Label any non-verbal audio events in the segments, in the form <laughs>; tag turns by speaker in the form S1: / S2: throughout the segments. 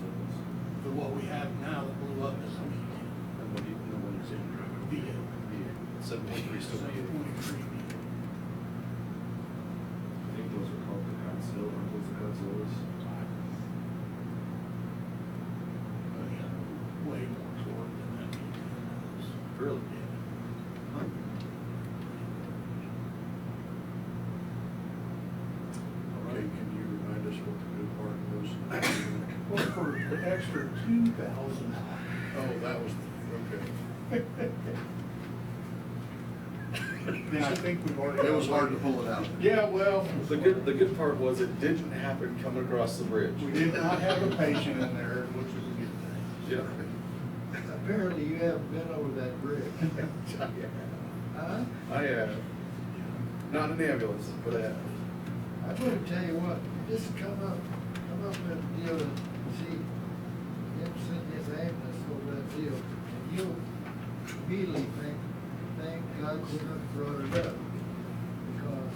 S1: uh,
S2: seven point three still be.
S3: I think those are called the Godzilla, aren't those Godzillas?
S1: Way more toward than that meeting was.
S2: Really?
S1: Okay, can you remind us what the good part was? Well, for the extra two thousand. Oh, that was, okay. Now, I think we've already.
S4: It was hard to pull it out.
S1: Yeah, well.
S2: The good, the good part was it didn't happen coming across the bridge.
S1: We did not have a patient in there, which is a good thing.
S2: Yeah.
S4: Apparently you haven't been over
S3: <laughs>
S4: that bridge. Huh?
S2: <laughs> I, uh, not in the ambulance, but, uh,
S4: I'm gonna tell you what, just come up, come up and deal and see, him send his ambulance over that deal, and you'll immediately think, thank God you not brought it up, because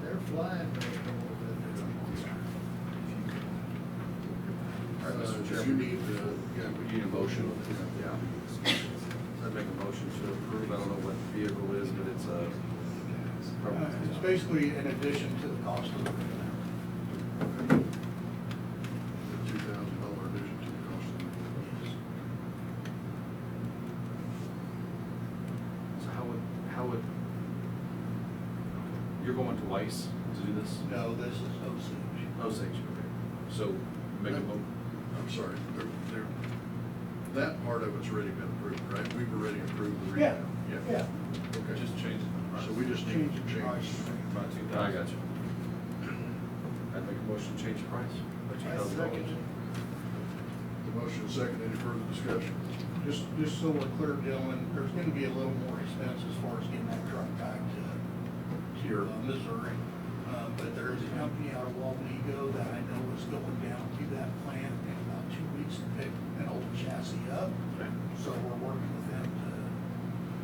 S4: they're flying right over
S5: All right, Mr.
S4: Uh,
S1: You
S5: Chairman.
S1: need the,
S5: Yeah, we
S1: Uh,
S5: need a motion. Yeah. So I'd make a motion to approve, I don't know what the vehicle is, but it's a.
S1: uh, it's basically in addition to the cost of it.
S4: the two thousand dollar addition to the cost
S5: So how would, how would? You're going to Weiss to do this?
S1: No, this is Osage.
S4: Uh,
S5: Osage, okay. So make a mo,
S4: I'm sorry, they're, they're, that part of it's already been approved, right? We've already approved the
S1: Yeah,
S4: rehab.
S1: yeah.
S4: Okay,
S6: Just change it.
S4: so we just need to change.
S6: By two thousand.
S5: I got you. I'd make a motion to change the price. by $2,000.
S4: The motion second, any further discussion?
S1: Just, just so we're clear, Dylan, there's gonna be a little more expense as far as getting that truck back to, to your uh, Missouri. Uh, but there is a company out of Walnego that I know is going down to that plant in about two weeks to pick an old chassis up.
S5: Okay.
S1: So we're working with them to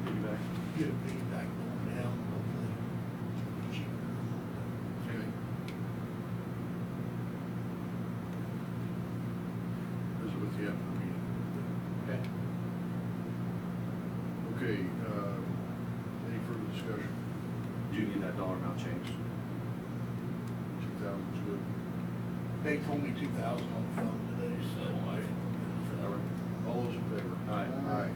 S5: Give you back.
S1: get it beat back going down, hopefully cheaper.
S4: Okay. This is with the after meeting.
S5: Okay.
S4: Okay, uh, any further discussion?
S5: Do you need that dollar amount changed?
S4: Two thousand's good.
S1: They told me two thousand on the phone today, so I.
S4: All those in favor?
S5: Aye.
S4: Aye.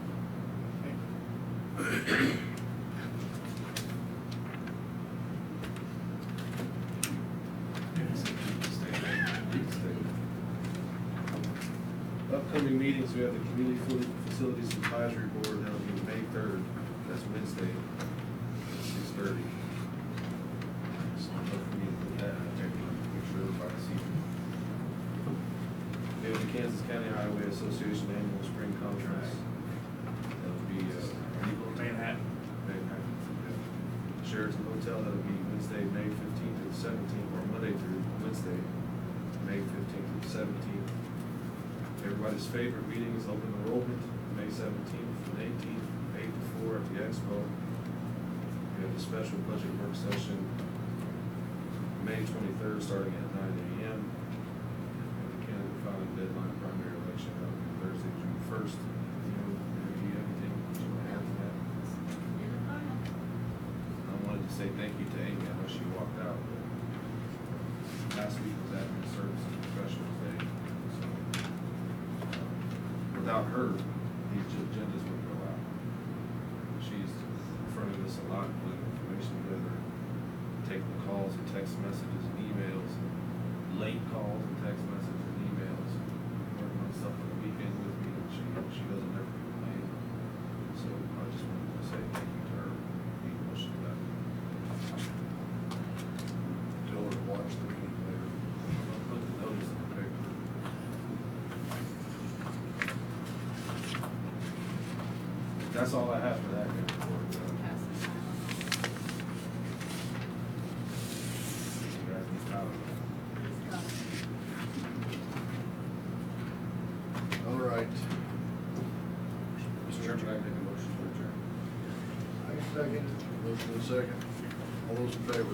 S3: Upcoming meetings, we have the Community Food Facilities Advisory Board, that'll be May third, that's Wednesday, six thirty. So I'm hoping to put that, I'll take one, make sure everybody's seen. We have the Kansas County Highway Association Annual Spring Conference, that'll be, uh,
S6: Manhattan.
S3: Manhattan. Sheraton Hotel, that'll be Wednesday, May fifteenth through seventeenth, or Monday through Wednesday, May fifteenth through seventeenth. Everybody's favorite meeting is open enrollment, May seventeenth and eighteenth, eight to four at the expo. We have a special budget work session, May twenty-third, starting at nine AM. And the candidate filing deadline primary election, that'll be Thursday, June first. Do you have anything you want to add to that? I wanted to say thank you to Amy, I know she walked out, but last week was Admin Service and Professionals Day, so. um, Without her, these agendas would go out. She's in front of us a lot, putting information together, taking calls and text messages and emails, late calls and text messages and emails, working on stuff on the weekend with me, and she, she doesn't ever complain. So I just wanted to say thank you to her, Need a motion to that.
S4: Tell her to watch the meeting later.
S3: I'll Put the notice in the paper. That's all I have for that good report. uh, You guys need to
S4: All right.
S5: Mr. Chairman, I make a motion to adjourn.
S4: I second. Motion in second. All those in favor?